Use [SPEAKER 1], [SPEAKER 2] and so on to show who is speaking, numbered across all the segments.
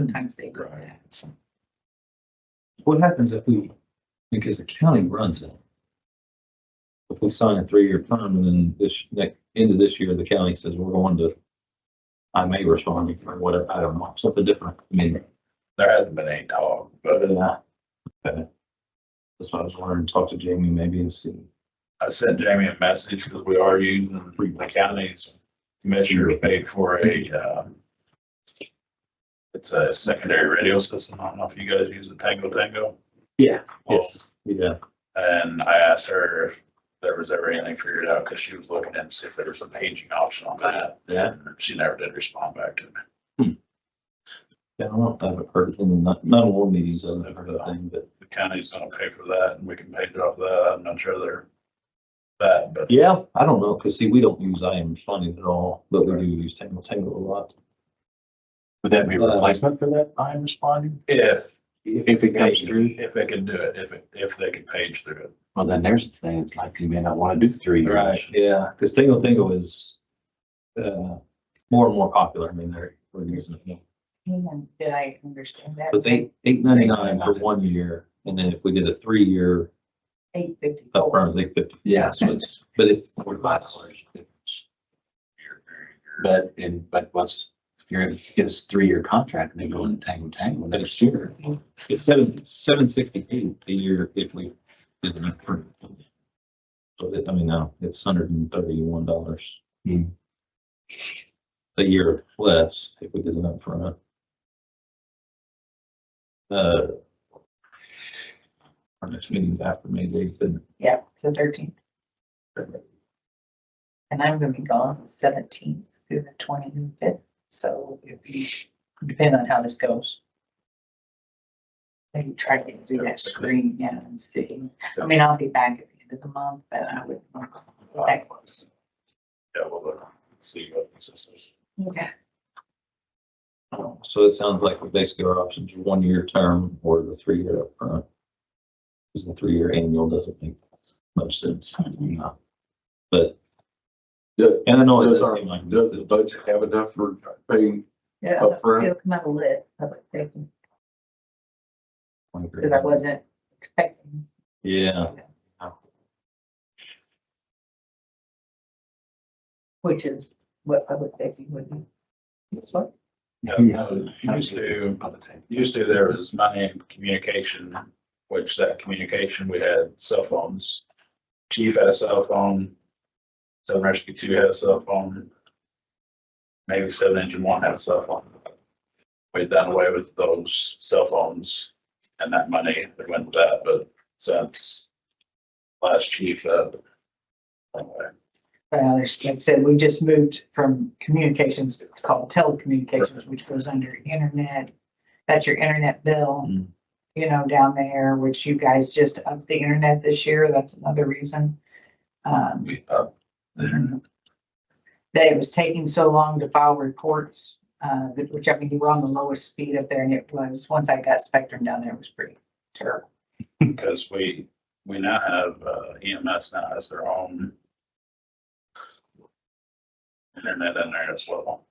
[SPEAKER 1] sometimes they go
[SPEAKER 2] Right.
[SPEAKER 1] back.
[SPEAKER 3] What happens if we, because the county runs it. If we sign a three-year term and then this, next, end of this year, the county says we're going to, I may respond or whatever, I don't know, something different. I mean,
[SPEAKER 2] There hasn't been any talk, but
[SPEAKER 3] yeah. Okay. That's why I was wondering, talk to Jamie maybe and see.
[SPEAKER 2] I sent Jamie a message because we are using the county's measure paid for a, uh, it's a secondary radio system. I don't know if you guys use the Tango Tango.
[SPEAKER 3] Yeah.
[SPEAKER 2] Well,
[SPEAKER 3] Yes, yeah.
[SPEAKER 2] And I asked her if there was ever anything figured out because she was looking in to see if there was a paging option on that.
[SPEAKER 3] Yeah.
[SPEAKER 2] And She never did respond back to me.
[SPEAKER 3] I don't know if I've heard in the not, not all meetings, I've never heard of thing, but
[SPEAKER 2] The county's gonna pay for that and we can pay it off that. I'm not sure they're that, but
[SPEAKER 3] yeah, I don't know, because see, we don't use I am funding at all, but we do use Tangle Tangle a lot.
[SPEAKER 4] Would that be a
[SPEAKER 3] Uh,
[SPEAKER 4] replacement for that? I'm responding.
[SPEAKER 2] if,
[SPEAKER 4] If it comes through,
[SPEAKER 2] if they can do it, if, it- if they can page through it.
[SPEAKER 4] well, then there's the thing, it's like you may not want to do three. years.
[SPEAKER 3] Right, yeah, because Tingle Tingle is uh, more and more popular. I mean, they're, we're using it. now.
[SPEAKER 1] And did I understand that?
[SPEAKER 3] So It's eight, eight ninety-nine for one year, and then if we did a three-year
[SPEAKER 1] Eight fifty-four.
[SPEAKER 3] upfront, it's eight fifty.
[SPEAKER 4] Yeah,
[SPEAKER 3] So it's, but if
[SPEAKER 4] forty five dollars. But in, but what's, if you're, if you get us three-year contract and they go into Tango Tango next year.
[SPEAKER 3] it's seven, seven sixty-eight a year if we did an upfront. So that, I mean, now it's hundred and thirty-one dollars.
[SPEAKER 4] Hmm.
[SPEAKER 3] A year less if we did an upfront. Uh. Our next meeting's after May the eighth, and
[SPEAKER 1] Yeah, it's the thirteenth. And I'm gonna be gone the seventeenth through the twenty-fifth, so it'd be, depend on how this goes. Maybe try to do that screen, yeah, and see. I mean, I'll be back at the end of the month, but I would, that close.
[SPEAKER 2] Yeah, we'll look, see what this is.
[SPEAKER 1] Okay.
[SPEAKER 3] so it sounds like basically our options are one-year term or the three-year upfront. Because the three-year annual doesn't make much sense.
[SPEAKER 4] No.
[SPEAKER 3] But.
[SPEAKER 5] Do-
[SPEAKER 3] And I know it
[SPEAKER 5] Does
[SPEAKER 3] doesn't
[SPEAKER 5] our,
[SPEAKER 3] seem like.
[SPEAKER 5] does the budget have enough for paying?
[SPEAKER 1] Yeah,
[SPEAKER 5] Up front.
[SPEAKER 1] it'll come out of lit, public safety,
[SPEAKER 3] I agree.
[SPEAKER 1] because I wasn't expecting.
[SPEAKER 3] Yeah,
[SPEAKER 1] Which is what public safety would be. That's what-
[SPEAKER 2] Yeah,
[SPEAKER 4] Yeah.
[SPEAKER 2] no, Used to, used to there was money in communication, which that communication, we had cell phones. Chief had a cell phone. Seven Rescue Two had a cell phone. Maybe Seven Engine One had a cell phone. We'd done away with those cell phones and that money that went with that, but since last chief, uh, anyway,
[SPEAKER 1] Well, there's, like I said, we just moved from communications, to it's called telecommunications, which goes under internet. That's your internet bill,
[SPEAKER 3] Mm.
[SPEAKER 1] you know, down there, which you guys just upped the internet this year. That's another reason. Um,
[SPEAKER 2] we uh, up there.
[SPEAKER 1] that it was taking so long to file reports, uh, that- which I mean, you were on the lowest speed up there and it was, once I got Spectrum down there, it was pretty terrible.
[SPEAKER 2] Because we, we now have uh, EMS now has their own internet in there as well.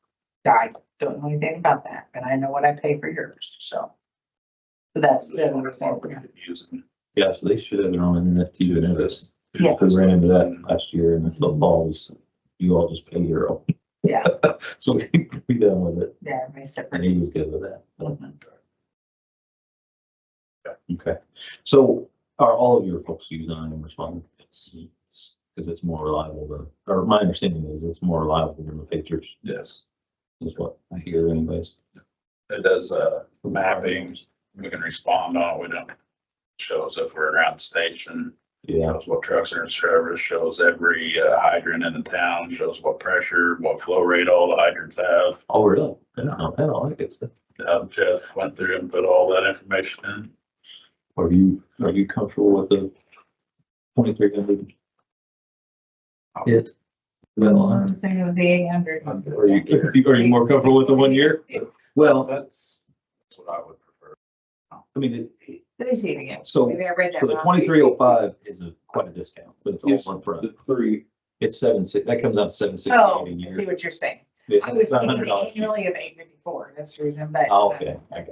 [SPEAKER 1] I don't know anything about that, but I know what I pay for yours, so. So that's, that's what I'm saying.
[SPEAKER 2] Using.
[SPEAKER 3] yeah, so they should have their own internet to do this.
[SPEAKER 1] Yeah.
[SPEAKER 3] We ran into that last year and it's the balls, you all just pay your own.
[SPEAKER 1] Yeah.
[SPEAKER 3] So we, we done with it
[SPEAKER 1] yeah, everybody's separate.
[SPEAKER 3] and he was good with that.
[SPEAKER 1] Mhm.
[SPEAKER 3] Okay, so are all of your folks using Iron Respond? Because it's more reliable than, or my understanding is it's more reliable than the pagers
[SPEAKER 2] Yes,
[SPEAKER 3] is what I hear anyways.
[SPEAKER 2] it does uh, mapping. We can respond on, we don't, shows if we're around the station,
[SPEAKER 3] Yeah,
[SPEAKER 2] shows what trucks are in service, shows every uh, hydrant in the town, shows what pressure, what flow rate all the hydrants have.
[SPEAKER 3] oh, really? I don't know, I don't like it.
[SPEAKER 2] Uh, Jeff went through and put all that information in.
[SPEAKER 3] Are you, are you comfortable with the twenty-three hundred? It. Well,
[SPEAKER 1] I'm thinking of the eight hundred.
[SPEAKER 3] are you, are you- are you more comfortable with the one year? Well,
[SPEAKER 2] That's, that's what I would prefer.
[SPEAKER 3] I mean, it-
[SPEAKER 1] Let me see it again.
[SPEAKER 3] so,
[SPEAKER 1] Maybe I read that
[SPEAKER 3] so Oh, the
[SPEAKER 1] wrong.
[SPEAKER 3] twenty-three oh five is a, quite a discount, but it's all
[SPEAKER 5] Yes.
[SPEAKER 3] upfront.
[SPEAKER 5] The three,
[SPEAKER 3] It's seven, si- that comes out seven sixty-eight
[SPEAKER 1] Oh,
[SPEAKER 3] a
[SPEAKER 1] I see
[SPEAKER 3] year.
[SPEAKER 1] what you're saying. I was
[SPEAKER 3] It's not
[SPEAKER 1] thinking
[SPEAKER 3] $100 cheaper.
[SPEAKER 1] annually of eight fifty-four, that's the reason, but.
[SPEAKER 3] Oh, Okay, I got it.